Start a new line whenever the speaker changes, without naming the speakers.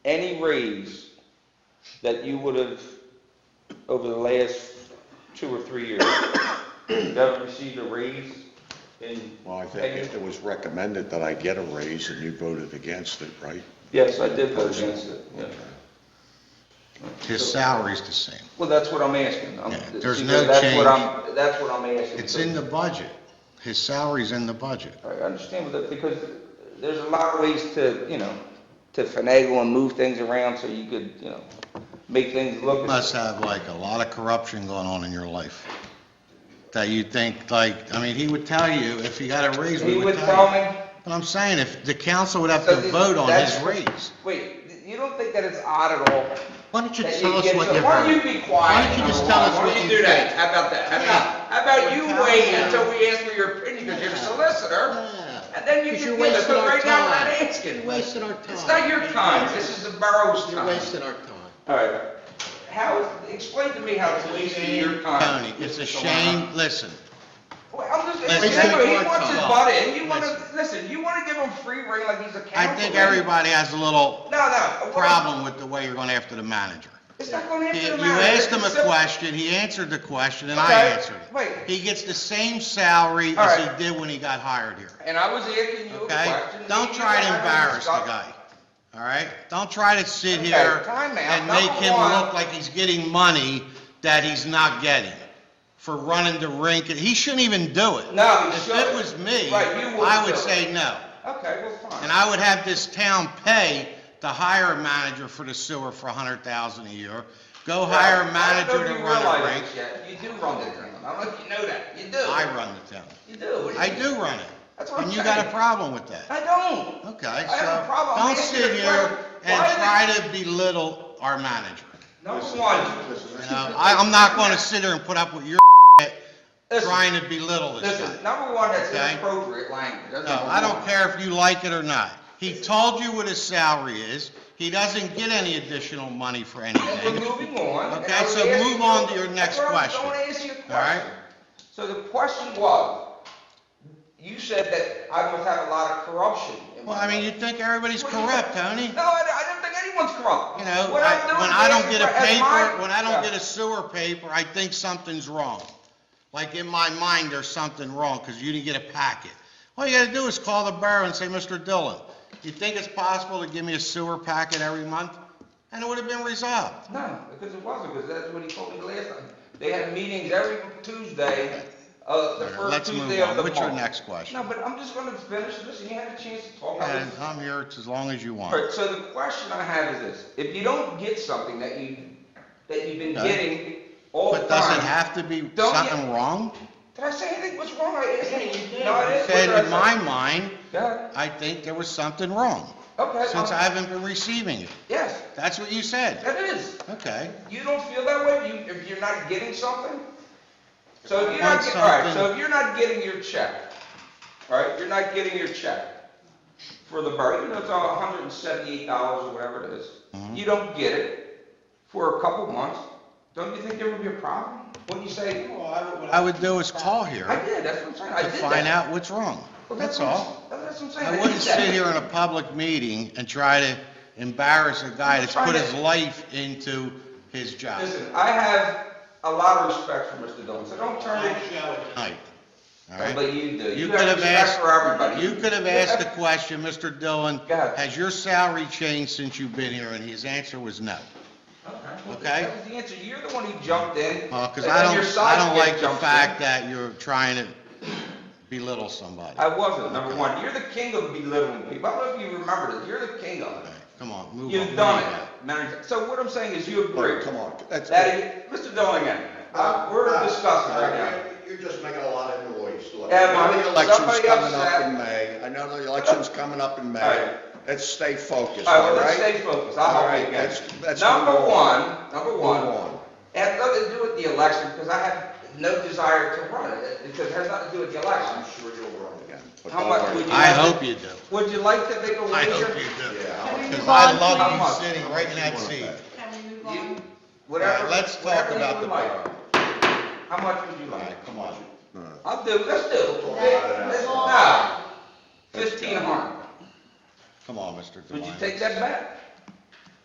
any raise that you would have over the last two or three years? You haven't received a raise in,
Well, I think it was recommended that I get a raise and you voted against it, right?
yes, I did vote against it. yeah.
His salary's the same.
Well, that's what I'm asking. I'm-
Yeah, there's
see,
no
that's what
change.
I'm- That's what I'm asking.
It's in the budget. His salary's in the budget.
I understand with that, because there's a lot of ways to, you know, to finagle and move things around so you could, you know, make things look.
Must have like a lot of corruption going on in your life. That you think like, I mean, he would tell you, if he got a raise,
He
we
would
would
tell
tell you.
me,
But I'm saying, if the council would have to
So the-
vote on his
that's-
raise.
wait, you don't think that it's odd at all?
Why don't you
that
tell us
get
what
to-
you
Why don't
heard?
you be quiet?
Why don't you
number
just tell
one?
us
Why
what
don't you
you
do that? How about that? How about, how about you
Tell
wait
us.
until we ask for your opinion, because you're a solicitor?
Yeah.
And then you
Because
can
you're
give us,
wasting
but
our
right now, I'm not
time.
asking.
You're wasting our time.
It's not your time, this is the borough's
You're
time.
wasting our time.
All right. How, explain to me how it's wasting your time.
Tony, it's
Mr.
a
Solano.
shame, listen,
Well, I'm just,
Listen.
exactly, he
Listen.
wants his butt in, you wanna,
Listen.
listen, you wanna give him free rein like he's a councilman.
I think everybody has a little
No, no. what-
problem with the way you're going after the manager.
It's not gonna
You
answer the matter.
asked him a
It's simple.
question, he answered the question, and I
Okay,
answered it.
wait.
He gets the same salary
All
as
right.
he did when he got hired here,
And I was asking you a
okay?
question.
Don't
You
try to
had a
embarrass the
discuss-
guy, all right? Don't try to sit
Okay,
here
time out.
and make
Number
him
one-
look like he's getting money that he's not getting for running the rink. He shouldn't even do it.
No, he
If
shouldn't.
it was me,
Right, you wouldn't
I
do
would
it.
say no.
Okay, well, fine.
And I would have this town pay to hire a manager for the sewer for a hundred thousand a year. Go hire a manager to run a rink.
You do run the town, I don't know if you know that, you do.
I run the town.
You do. What
I
you-
do run it.
That's what I'm
And you got a
saying.
problem with that.
I don't.
Okay,
I have a
so
problem. I'm
don't
asking
sit
you a
here
question.
and
Why did-
try to belittle our manager.
Number one,
You know, I, I'm not gonna sit here and put up with your
listen,
trying to belittle this guy.
listen, number one, that's
Okay.
inappropriate language. That's
No,
number
I don't
one.
care if you like it or not. He told you what his salary is. He doesn't get any additional money for
We're
anything.
moving on. and
Okay,
I was
so
asking
move
you-
on to your next
That's what I was-
question.
I want to ask you a
All right.
question. So the question was, you said that I must have a lot of corruption in my
Well, I mean, you
life.
think everybody's
What do you-
corrupt, Tony?
No, I don't- I don't think anyone's corrupt.
You know,
What I'm
I-
doing
when
is
I don't
asking
get a
for- as my-
paper, when I
Yeah.
don't get a sewer paper, I think something's wrong. Like in my mind, there's something wrong because you didn't get a packet. All you gotta do is call the borough and say, Mr. Dillon, you think it's possible to give me a sewer packet every month? And it would have been resolved.
No, because it wasn't, because that's what he told me the last time. They had meetings every Tuesday, uh, the first
Let's move
Tuesday of
on.
the month.
What's your next question?
No, but I'm just gonna finish this, and you had a chance to talk. I was-
And I'm here as long as you want.
All right, so the question I have is this, if you don't get something that you, that you've been
Okay.
getting all the time.
But does it have to be
Don't get-
something wrong?
Did I say anything, what's wrong? I asked you. No, I
I
didn't.
Said in
What
my
did I say?
mind,
Yeah,
I think there was something wrong,
okay.
since
I'm-
I haven't been receiving it.
Yes,
That's what you said.
that is.
Okay.
You don't feel that way, you, if you're not getting something? So if you're not,
Want
get- all right, so
something-
if you're not getting your check, all right, you're not getting your check for the borough, even though it's all hundred and seventy-eight dollars or whatever it is,
Mhm.
you don't get it for a couple months, don't you think there would be a problem? Wouldn't you say, "Oh,
What I would do is call
I
here
did, that's what I'm saying, I
to
did that.
find out what's wrong.
Well,
That's
what I'm-
all.
That's what I'm saying.
I
did
wouldn't
that.
sit here in a public meeting and try to embarrass a guy that's put his life into his job.
Listen, I have a lot of respect for Mr. Dillon, so don't turn it,
Tonight. All right?
but you do.
You
You
could
have
have
respect
asked,
for everybody.
you could have asked the question, Mr. Dillon,
Go ahead.
has your salary changed since you've been here? And his answer was no.
well,
okay.
That was the answer. You're the one who jumped in.
Because
and
Uh, I
your
don't, I
side
don't
chick
like the
jumped in.
fact that you're trying to belittle somebody.
I wasn't, number one. You're the king of belittling people. I don't know if you remember this. You're the king of
All
it.
right, Come on, move on.
You've done it. Manager. So what I'm saying is you agree.
Look, come on, that's,
That is, Mr. Dillingham, uh, we're discussing right now.
You're just making a lot of noise, look.
Yeah,
I
but-
know the election's
Somebody
coming up
upset.
in May, I know the election's coming up in
All
May.
right.
Let's stay focused,
All right,
all
well, let's
right?
stay focused. I'll
All
help you
right,
again.
let's- let's
Number
move
one,
on.
number
Move
one,
on.
it has nothing to do with the election because I have no desire to run it. It it has nothing to do with the election.
I'm sure you'll run again.
But
How
don't
much
worry.
would you
I
like? to-
hope you do.
Would you like to make a wager?
I hope you do.
Yeah, I'll-
Because I
How much?
love you sitting right in that
E?
seat.
Can we move
You-
on?
Whatever.
Let's talk
whatever you
about
would
the
like.
borough.
How much would you
All
like?
right, come on.
I'll do, let's do.
Yeah.
Let's- nah. Fifteen hundred.
Come on, Mr.
Would you
Delino.
take that back?